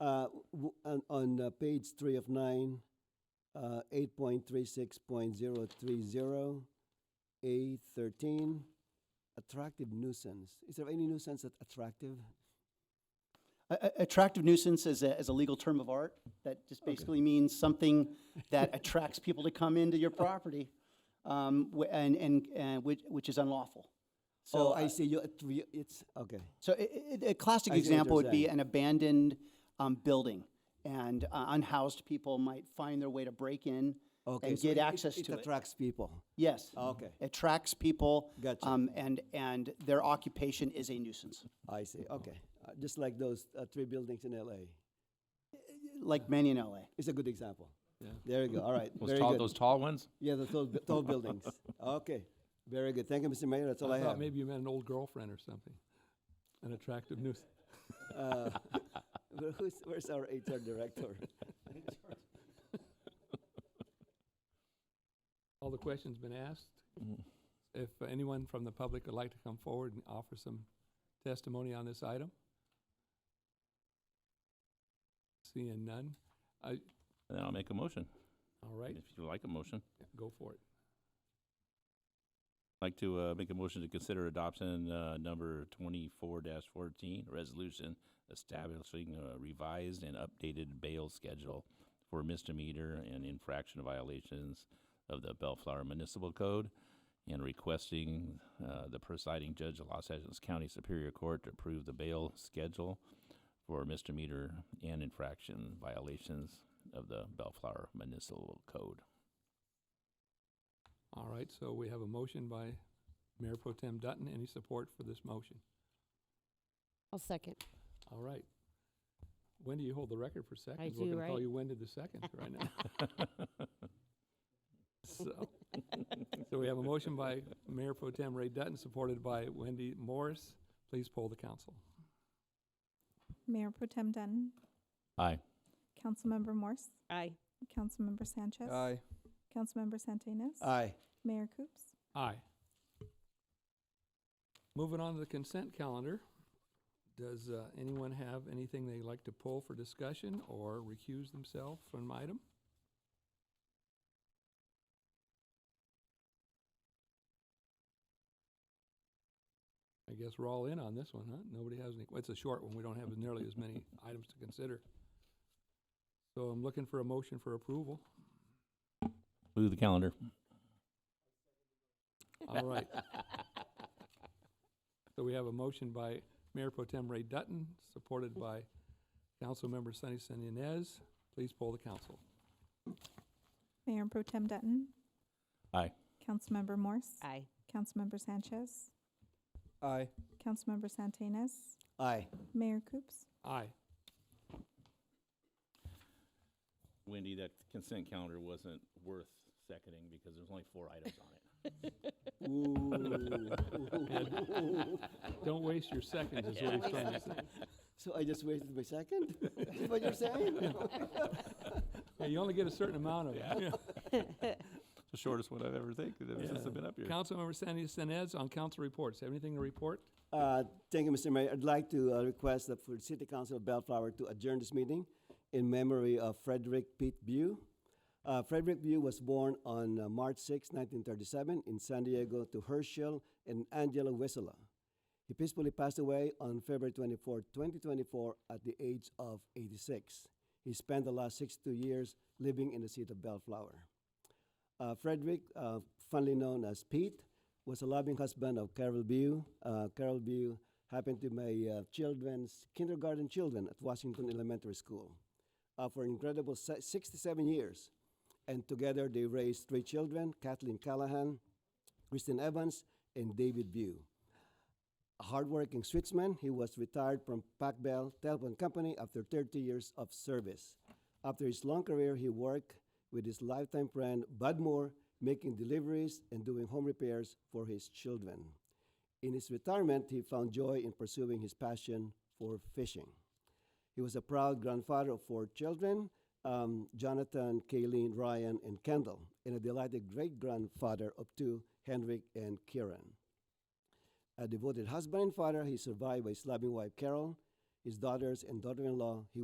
Uh, w- on, on uh, page three of nine, uh, eight point three six point zero three zero, A thirteen, attractive nuisance. Is there any nuisance that's attractive? A- a- Attractive nuisance is a, is a legal term of art that just basically means something that attracts people to come into your property, um, wh- and, and, and which, which is unlawful. Oh, So, I uh, see, you, att- you- it's, okay. so a, a classic I see what example you're would be saying. an abandoned, um, building, and uh, unhoused people might find their way to break in Okay, and so get it- access to It it. attracts people. Yes. Okay. Attracts people. Gotcha. Um, and, and their occupation is a nuisance, I see, okay. Uh, Just like those uh, three buildings in LA. like many in LA. It's a good example. There you go, all right, Those very tall, good. those tall ones? Yeah, the tall, bu- tall buildings. Okay, very good. Thank you, Mr. Mayor, that's all I I have. thought maybe you meant an old girlfriend or something, an attractive nuisance. Uh, where- who's, where's our HR director? All the questions been asked. Mm-hmm. If anyone from the public would like to come forward and offer some testimony on this item? Seeing none, I, And then I'll make a motion, all right, if you like a motion. go for it. I'd Like to, uh, make a motion to consider adoption, uh, number twenty-four dash fourteen, resolution establishing a revised and updated bail schedule for misdemeanor and infraction violations of the Bellflower Municipal Code and requesting, uh, the presiding judge of Los Angeles County Superior Court to approve the bail schedule for misdemeanor and infraction violations of the Bellflower Municipal Code. All right, so we have a motion by Mayor Pro Tem Dutton. Any support for this motion? I'll second. All right. Wendy, you hold the record for seconds. do, We're gonna call right? you Wendy the second right now. So, so we have a motion by Mayor Pro Tem Ray Dutton, supported by Wendy Morris. Please poll the council. Mayor Pro Tem Dunn, Aye. Councilmember Morse, Aye. Councilmember Sanchez, Councilmember Santinas, Aye. Mayor Coops. Aye. Moving on to the consent calendar. Does uh, anyone have anything they'd like to pull for discussion or recuse themselves from an item? I guess we're all in on this one, huh? Nobody has any, well, it's a short one. We don't have nearly as many items to consider. So I'm looking for a motion for approval. Move the calendar. All right. So we have a motion by Mayor Pro Tem Ray Dutton, supported by Councilmember Sunny Sin Inez. Please poll the council. Mayor Pro Tem Dunn. Aye. Councilmember Morse, Aye. Councilmember Sanchez, Aye. Councilmember Santinas, Aye. Mayor Coops. Aye. Wendy, that consent calendar wasn't worth seconding because there's only four items on it. Don't waste your seconds, is what he's trying to say. So I just wasted my second? Is what you're saying? Yeah, you only get a certain amount of it. The shortest one I've ever taken since I've been up here. Councilmember Sunny Sin Inez on council reports. Have anything to report? Uh, Thank you, Mr. Mayor. I'd like to uh, request that for the City Council of Bellflower to adjourn this meeting in memory of Frederick Pete Bew. Uh, Frederick Bew was born on uh, March 6, 1937, in San Diego to Herschel and Angela Wissela. He peacefully passed away on February 24, 2024, at the age of 86. He spent the last 62 years living in the city of Bellflower. Uh, Frederick, uh, fondly known as Pete, was a loving husband of Carol Bew. Uh, Carol Bew happened to be my uh, children's kindergarten children at Washington Elementary School uh, for incredible se- 67 years. And together they raised three children Kathleen Callahan, Kristen Evans, and David Bew. A hardworking Switzman, he was retired from Pac Bell Telephone Company after 30 years of service. After his long career, he worked with his lifetime friend Bud Moore, making deliveries and doing home repairs for his children. In his retirement, he found joy in pursuing his passion for fishing. He was a proud grandfather of four children um, Jonathan, Kayleen, Ryan, and Kendall, and a delighted great grandfather of two, Henrik and Kieran. A devoted husband and father, he survived by his loving wife Carol, his daughters and daughter in law. He